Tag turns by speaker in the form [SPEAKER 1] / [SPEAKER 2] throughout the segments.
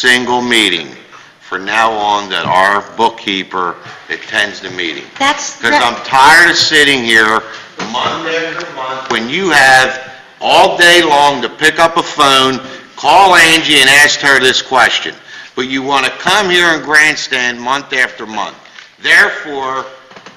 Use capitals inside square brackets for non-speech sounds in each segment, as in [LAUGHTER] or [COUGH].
[SPEAKER 1] single meeting from now on that our bookkeeper attends the meeting.
[SPEAKER 2] That's,
[SPEAKER 1] Because I'm tired of sitting here month after month, when you have all day long to pick up a phone, call Angie and ask her this question. But you want to come here and grandstand month after month. Therefore,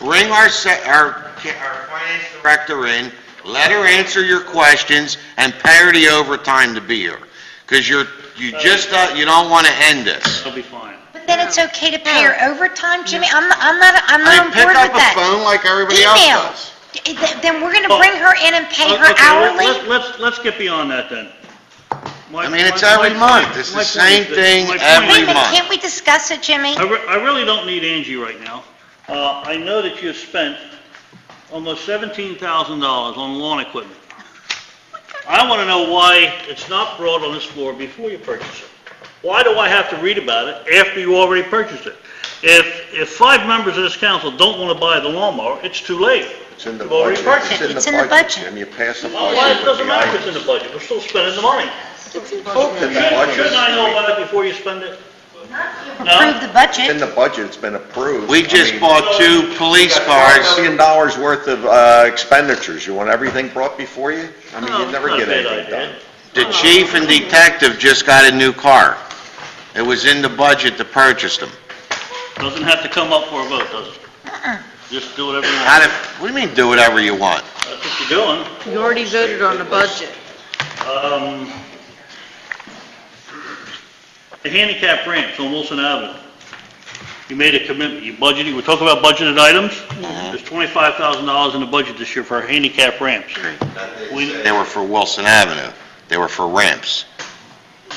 [SPEAKER 1] bring our, se- our, our finance director in, let her answer your questions, and pay her the overtime to be here. Because you're, you just, don't- you don't want to end this.
[SPEAKER 3] It'll be fine.
[SPEAKER 2] but then it's okay to pay her overtime, Jimmy? I'm, I'm not, I'm
[SPEAKER 1] I
[SPEAKER 2] not on
[SPEAKER 1] mean,
[SPEAKER 2] board with
[SPEAKER 1] Pick up a
[SPEAKER 2] that.
[SPEAKER 1] phone like everybody else
[SPEAKER 2] Email.
[SPEAKER 1] does.
[SPEAKER 2] D- th- Then we're gonna bring her in and pay her
[SPEAKER 3] Okay, let- let-
[SPEAKER 2] hourly?
[SPEAKER 3] Let's, let's get beyond that then. My-
[SPEAKER 1] I mean, it's
[SPEAKER 3] my-
[SPEAKER 1] every
[SPEAKER 3] my
[SPEAKER 1] month.
[SPEAKER 3] point-
[SPEAKER 1] It's the
[SPEAKER 3] my point
[SPEAKER 1] same
[SPEAKER 3] is that-
[SPEAKER 1] thing
[SPEAKER 3] my point
[SPEAKER 1] every
[SPEAKER 2] Wait a
[SPEAKER 3] is
[SPEAKER 2] minute,
[SPEAKER 3] that
[SPEAKER 1] month.
[SPEAKER 2] can't we discuss it, Jimmy?
[SPEAKER 3] I re- I really don't need Angie right now. Uh, I know that you have spent almost $17,000 on lawn equipment. I want to know why it's not brought on this floor before you purchase it. Why do I have to read about it after you already purchased it? If, if five members of this council don't want to buy the lawnmower, it's too late.
[SPEAKER 4] It's in the
[SPEAKER 3] You've already
[SPEAKER 4] budget.
[SPEAKER 3] purchased it.
[SPEAKER 2] It's in the budget.
[SPEAKER 4] And you pass the
[SPEAKER 3] Well, Why,
[SPEAKER 4] budget.
[SPEAKER 3] it doesn't matter if it's in the budget, we're still spending the money.
[SPEAKER 4] in the budget.
[SPEAKER 3] Shouldn't I know about it before you spend it?
[SPEAKER 2] Approve the
[SPEAKER 4] It's in
[SPEAKER 2] budget?
[SPEAKER 4] the budget, it's been approved.
[SPEAKER 1] We just bought two police cars.
[SPEAKER 4] Million dollars worth of uh, expenditures, you want everything brought before you? I mean,
[SPEAKER 3] No,
[SPEAKER 4] you never
[SPEAKER 3] not a
[SPEAKER 4] get
[SPEAKER 3] bad
[SPEAKER 4] anything
[SPEAKER 3] idea.
[SPEAKER 4] done.
[SPEAKER 1] The chief and detective just got a new car. It was in the budget to purchase them.
[SPEAKER 3] Doesn't have to come up for a vote, does it?
[SPEAKER 5] Uh-uh.
[SPEAKER 3] Just do whatever you
[SPEAKER 1] How
[SPEAKER 3] want.
[SPEAKER 1] to, what do you mean, do whatever you want?
[SPEAKER 3] That's what you're doing.
[SPEAKER 5] You already voted on the budget.
[SPEAKER 3] Um, The handicap ramps on Wilson Avenue. You made a commitment, you budgeted, we're talking about budgeted items. There's $25,000 in the budget this year for handicap ramps. We-
[SPEAKER 1] They were for Wilson Avenue. They were for ramps.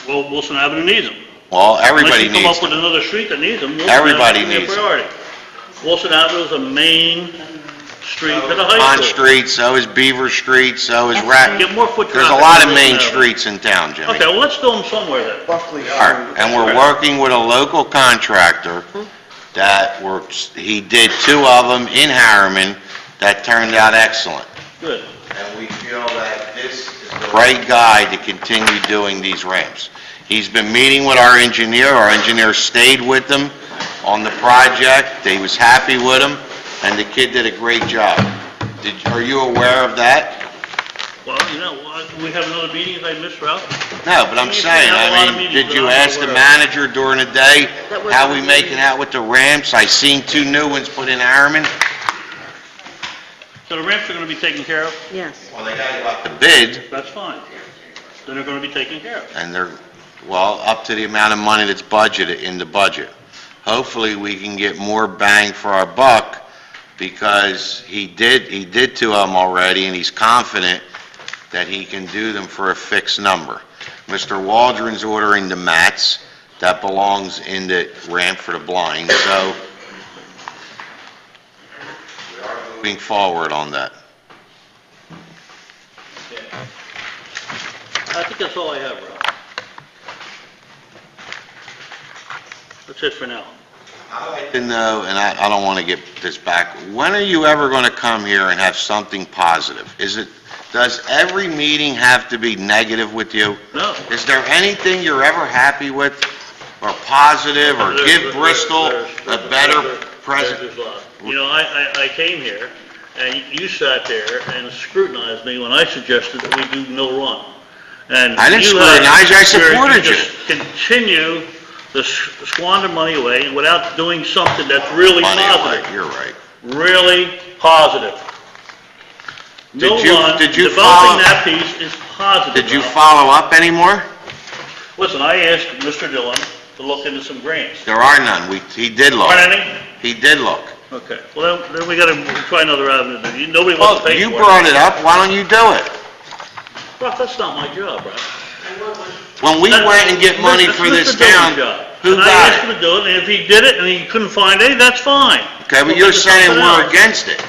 [SPEAKER 3] Well, Wilson Avenue needs them.
[SPEAKER 1] Well, everybody
[SPEAKER 3] Unless you come
[SPEAKER 1] needs
[SPEAKER 3] up with
[SPEAKER 1] them.
[SPEAKER 3] another street that needs them. Wilson
[SPEAKER 1] Everybody
[SPEAKER 3] Avenue is
[SPEAKER 1] needs
[SPEAKER 3] a
[SPEAKER 1] 'em.
[SPEAKER 3] priority. Wilson Avenue is a main street to the high
[SPEAKER 1] Pond
[SPEAKER 3] school.
[SPEAKER 1] Street, so is Beaver Street, so is Rat.
[SPEAKER 3] Get more foot traffic.
[SPEAKER 1] There's a lot of
[SPEAKER 3] on
[SPEAKER 1] main
[SPEAKER 3] Wilson Avenue.
[SPEAKER 1] streets in town, Jimmy.
[SPEAKER 3] Okay, well, let's do them somewhere then.
[SPEAKER 1] Are, and we're working with a local contractor that works, he did two of them in Harriman that turned out excellent.
[SPEAKER 3] Good.
[SPEAKER 1] And we feel that this is the right guy to continue doing these ramps. He's been meeting with our engineer, our engineer stayed with them on the project, he was happy with him, and the kid did a great job. Did, are you aware of that?
[SPEAKER 3] Well, you know, I- we have another meeting, if I missed, Ralph.
[SPEAKER 1] No, but I'm
[SPEAKER 3] We've
[SPEAKER 1] saying,
[SPEAKER 3] had a lot
[SPEAKER 1] I
[SPEAKER 3] of
[SPEAKER 1] mean,
[SPEAKER 3] meetings,
[SPEAKER 1] did you
[SPEAKER 3] but I'm
[SPEAKER 1] ask the
[SPEAKER 3] aware of it.
[SPEAKER 1] manager during the day,
[SPEAKER 5] That wasn't
[SPEAKER 1] how we
[SPEAKER 5] the
[SPEAKER 1] making
[SPEAKER 5] meeting.
[SPEAKER 1] out with the ramps? I seen two new ones put in Ironman.
[SPEAKER 3] So the ramps are going to be taken care of?
[SPEAKER 5] Yes.
[SPEAKER 1] Well, they got about The bid,
[SPEAKER 3] That's fine. Then they're going to be taken care of.
[SPEAKER 1] and they're, well, up to the amount of money that's budgeted in the budget. Hopefully, we can get more bang for our buck, because he did, he did two of them already, and he's confident that he can do them for a fixed number. Mr. Waldron's ordering the mats, that belongs in the ramp for the blind, so we are moving forward on that.
[SPEAKER 3] I think that's all I have, Ralph. That's it for now.
[SPEAKER 1] to know, and I, I don't want to get this back, when are you ever going to come here and have something positive? Is it, does every meeting have to be negative with you?
[SPEAKER 3] No.
[SPEAKER 1] Is there anything you're ever happy with, or positive, or give
[SPEAKER 3] There's-
[SPEAKER 1] Bristol
[SPEAKER 3] there's-
[SPEAKER 1] a
[SPEAKER 3] there's-
[SPEAKER 1] better
[SPEAKER 3] there's-
[SPEAKER 1] present?
[SPEAKER 3] there's a lot. You know, I, I, I came here, and you sat there and scrutinized me when I suggested that we do no run. And
[SPEAKER 1] I didn't
[SPEAKER 3] you had-
[SPEAKER 1] scrutinize you, I supported
[SPEAKER 3] where
[SPEAKER 1] you.
[SPEAKER 3] just Continue to s- squander money away without doing something that's really
[SPEAKER 1] Money,
[SPEAKER 3] positive.
[SPEAKER 1] right, you're right.
[SPEAKER 3] really positive. No
[SPEAKER 1] Did you-
[SPEAKER 3] one,
[SPEAKER 1] did you
[SPEAKER 3] developing
[SPEAKER 1] follow-
[SPEAKER 3] that piece is positive.
[SPEAKER 1] Did you
[SPEAKER 3] Ralph.
[SPEAKER 1] follow up anymore?
[SPEAKER 3] Listen, I asked Mr. Dillon to look into some grants.
[SPEAKER 1] There are none, we, he did look,
[SPEAKER 3] Aren't any?
[SPEAKER 1] he did look.
[SPEAKER 3] Okay, well, then- then we gotta try another avenue, then. You- nobody wants
[SPEAKER 1] Well,
[SPEAKER 3] to pay for it.
[SPEAKER 1] you brought it up, why don't you do it?
[SPEAKER 3] Ralph, that's not my job, Ralph.
[SPEAKER 1] When we
[SPEAKER 3] That-
[SPEAKER 1] went and get money
[SPEAKER 3] that's
[SPEAKER 1] for
[SPEAKER 3] Mr.
[SPEAKER 1] this
[SPEAKER 3] Dillon's
[SPEAKER 1] town,
[SPEAKER 3] job.
[SPEAKER 1] who
[SPEAKER 3] And I
[SPEAKER 1] got it?
[SPEAKER 3] asked him to do it, and if he did it and he couldn't find any, that's fine.
[SPEAKER 1] Okay,
[SPEAKER 3] We'll
[SPEAKER 1] but you're
[SPEAKER 3] figure
[SPEAKER 1] saying
[SPEAKER 3] something
[SPEAKER 1] we're
[SPEAKER 3] out.
[SPEAKER 1] against it.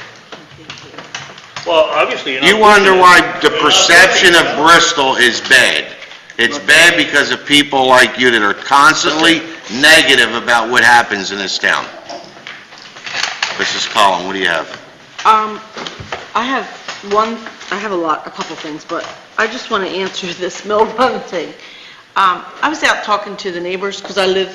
[SPEAKER 3] Well, obviously, you're not
[SPEAKER 1] You
[SPEAKER 3] pushing
[SPEAKER 1] wonder
[SPEAKER 3] it.
[SPEAKER 1] why the
[SPEAKER 3] You're not
[SPEAKER 1] perception
[SPEAKER 3] pushing
[SPEAKER 1] of
[SPEAKER 3] it.
[SPEAKER 1] Bristol is bad. It's bad because of people like you that are constantly negative about what happens in this town. Mrs. Collins, what do you have?
[SPEAKER 5] Um, I have [LAUGHS] one, I have a lot, a couple things, but I just want to answer this mill run thing. um, I was out talking to the neighbors, because I live